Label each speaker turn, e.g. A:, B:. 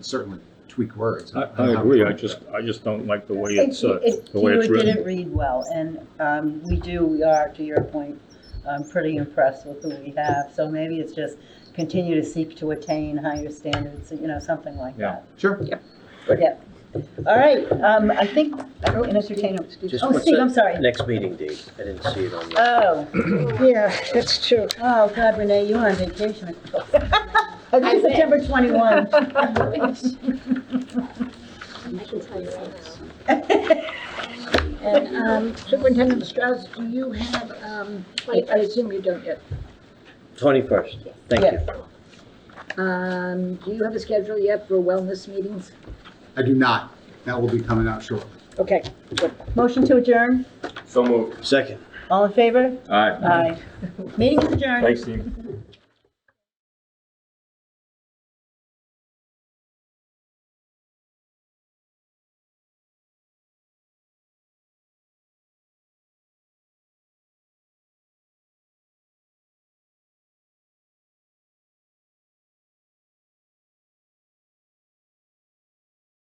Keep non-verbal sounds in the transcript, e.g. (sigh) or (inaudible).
A: certainly tweak words.
B: I, I agree, I just, I just don't like the way it's, uh,
C: It- it-
B: the way it's
C: Keyword
B: written.
C: didn't read well, and um, we do, we are, to your point, um, pretty impressed with who we have. So maybe it's just continue to seek to attain higher standards, you know, something like
B: Yeah.
C: that.
A: Sure.
C: All right, um, I think, I don't entertain, excuse me.
D: Just
C: Oh,
D: what's
C: Steve,
D: the
C: I'm sorry.
D: Next meeting date, I didn't see it on the.
C: Oh,
E: Yeah, that's true.
C: oh, God, Renee, you're on vacation. (laughs) I think
F: think.
C: September 21.
F: I can tell you right now.
E: And um, Superintendent Strauss, do you have, um, I I assume you don't yet,
D: Twenty-first, thank you.
C: Yes.
E: Um, do you have a schedule yet for wellness meetings?
A: I do not. That will be coming out shortly.
E: Okay,
C: Motion to adjourn,
G: So moved.
D: Second.
C: all in favor?
B: All right,
C: Aye. Meeting is adjourned.
B: thanks, Steve.